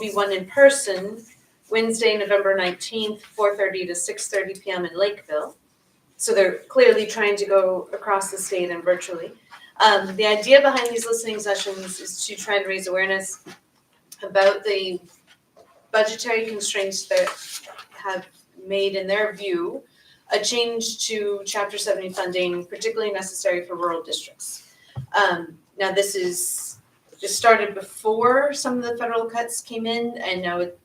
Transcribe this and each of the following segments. be one in person Wednesday, November nineteenth, four thirty to six thirty PM in Lakeville. So they're clearly trying to go across the state and virtually. Um, the idea behind these listening sessions is to try and raise awareness about the budgetary constraints that have made, in their view, a change to chapter seventy funding particularly necessary for rural districts. Um, now this is, this started before some of the federal cuts came in and now it,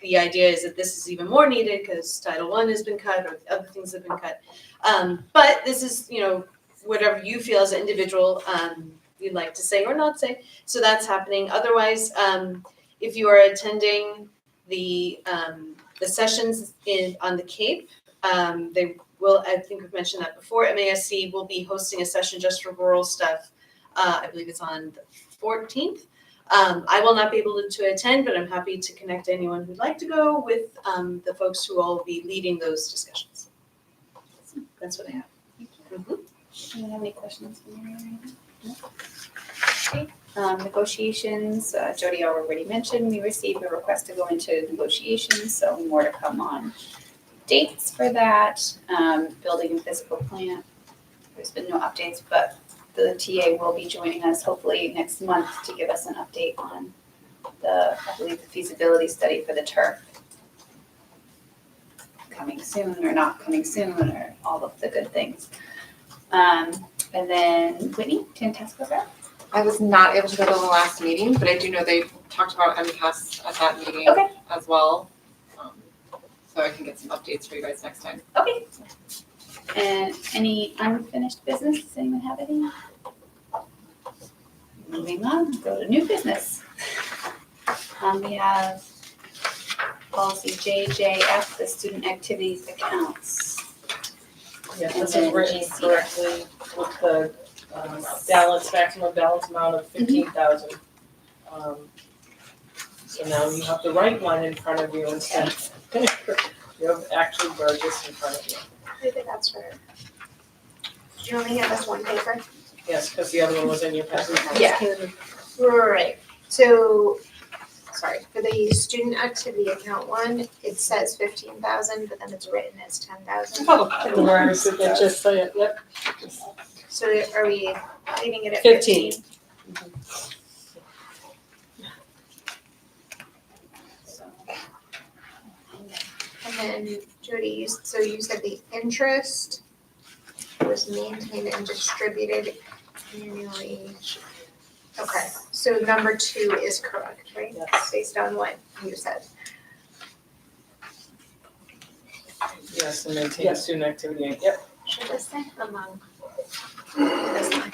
the idea is that this is even more needed because Title One has been cut or other things have been cut. Um, but this is, you know, whatever you feel as an individual, um, you'd like to say or not say. So that's happening. Otherwise, um, if you are attending the, um, the sessions in, on the Cape, um, they will, I think we've mentioned that before, MASC will be hosting a session just for rural stuff. Uh, I believe it's on the fourteenth. Um, I will not be able to attend, but I'm happy to connect anyone who'd like to go with, um, the folks who will be leading those discussions. That's what I have. Do you have any questions for Mary right now? Okay, Um, negotiations, uh, Jody already mentioned, we received a request to go into negotiations, so more to come on dates for that, um, building and physical plant. There's been no updates, but the TA will be joining us hopefully next month to give us an update on the, I believe, the feasibility study for the turf. Coming soon or not coming soon or all of the good things. Um, and then Whitney, Tantasco rep. I was not able to go to the last meeting, but I do know they talked about MCAS at that meeting Okay. as well. Um, So I can get some updates for you guys next time. Okay. And any unfinished business? Does anyone have any? Moving on, go to new business. Um, we have policy JJF, the student activities accounts. Yeah, And this then is written GCF. correctly with the um, balance, maximum balance amount of fifteen thousand. Um, So now you have the right one in front of you instead. You have actually Burgess in front of you. Maybe that's her. Do you only have this one paper? Yes, because the other one was in your present. Yeah. Right, so, sorry, for the student activity account one, it says fifteen thousand, but then it's written as ten thousand. The words, it just say it, yep. So are we leaving it at fifteen? Fifteen. So, And then Jody, you, s- so you said the interest was maintained and distributed annually. Okay, so number two is correct, right? Yes. Based on what you said. Yes, and maintain student activity, yep. Should I say among? That's fine.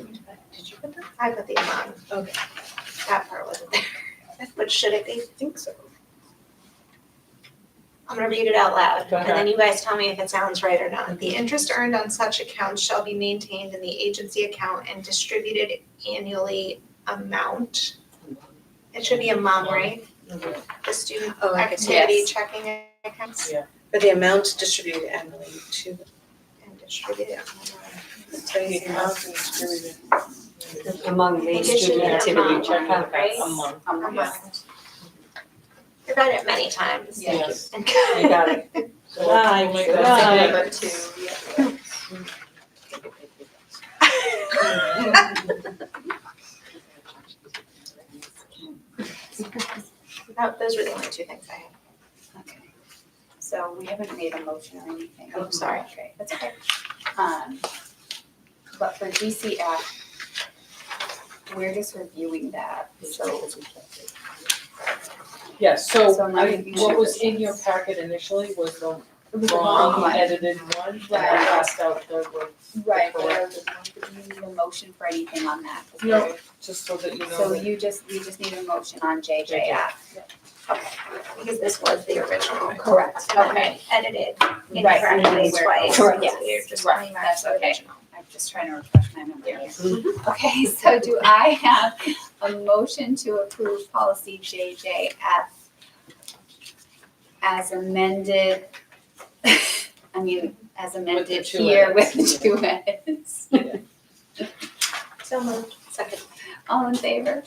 Did you put that? I put the among. Okay. That part wasn't there. But should it be? I think so. I'm gonna read it out loud, Go and then you guys tell me if it sounds right or not. The interest earned on such accounts shall be maintained in the agency account and distributed annually amount. It should be among, right? The student Oh, I guess, activity yes. checking accounts For the amount distributed annually to and distributed. The amount is distributed among the It should student be activity among, check out right? a month. Um, Among. I read it many times. Yes. You You got it. So we'll make Right. that today. Number two, yeah. That, those were the only two things I had. Okay. So we haven't made a motion or anything. Oh, sorry. Okay, that's okay. Um, but for GCF, we're just reviewing that, so. Yes, so So now I, you can what share was this. in your packet initially was the It wrong edited one, and I Right. passed out the, one, Right, but I was wondering, do you need a motion for anything on that? No. just so that you know So that. you just, we just need a motion on JJF. Because this was the original. Correct, And then okay. I edited Right, and then we're- incorrectly correct, twice. so we're yes, just right, going back that's to the okay. original. I'm just trying to refresh my memory here. Okay, so do I have a motion to approve policy JJF as amended? I mean, as amended two here with the edits. two edits. So moved. Second. All in favor?